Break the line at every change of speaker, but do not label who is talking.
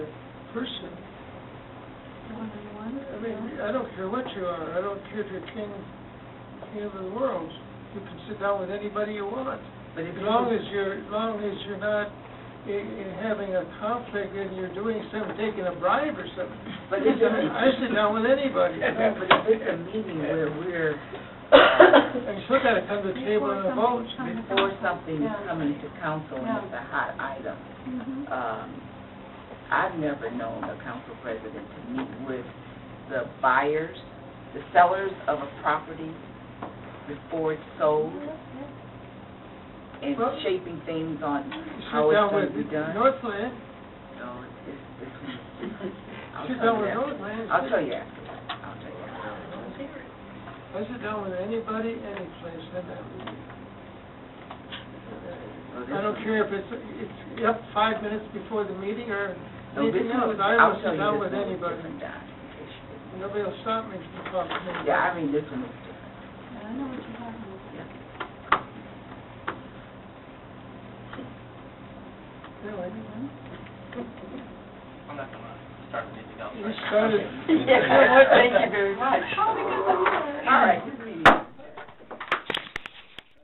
person. I mean, I don't care what you are, I don't care if you're king, king of the world, you can sit down with anybody you want.
But
As
if you,
long as you're, as long as you're not i- i- having a conflict and you're doing something, taking a bribe or something.
But if you're-
I sit down with anybody.
Yeah, but if it's a meeting where we're, uh,
And you still gotta come to the table and vote.
before something's coming to council and it's a hot item, um, I've never known a council president to meet with the buyers, the sellers of a property before it's sold and
Well-
shaping things on
You
how
Sit down
it's going
with
to be done.
Northland,
No, it's, it's, it's. I'll
sit
tell
down with
you after.
Northland.
I'll tell you after. I'll tell you after.
I sit down with anybody, any place, and
Well, this
I don't
is-
care if it's, it's up five minutes before the meeting or
No, this
anything else,
is-
I
I'll
will
tell
sit
you
down
this
with
one was
anybody.
different, Don, in case you didn't-
Nobody will stop me from talking to anybody.
Yeah, I mean, this one was different.
I know what you're talking about.
Really?
I'm not gonna start anything else.
You started.
Well, Thank you very much.
Oh, because I'm.
All right,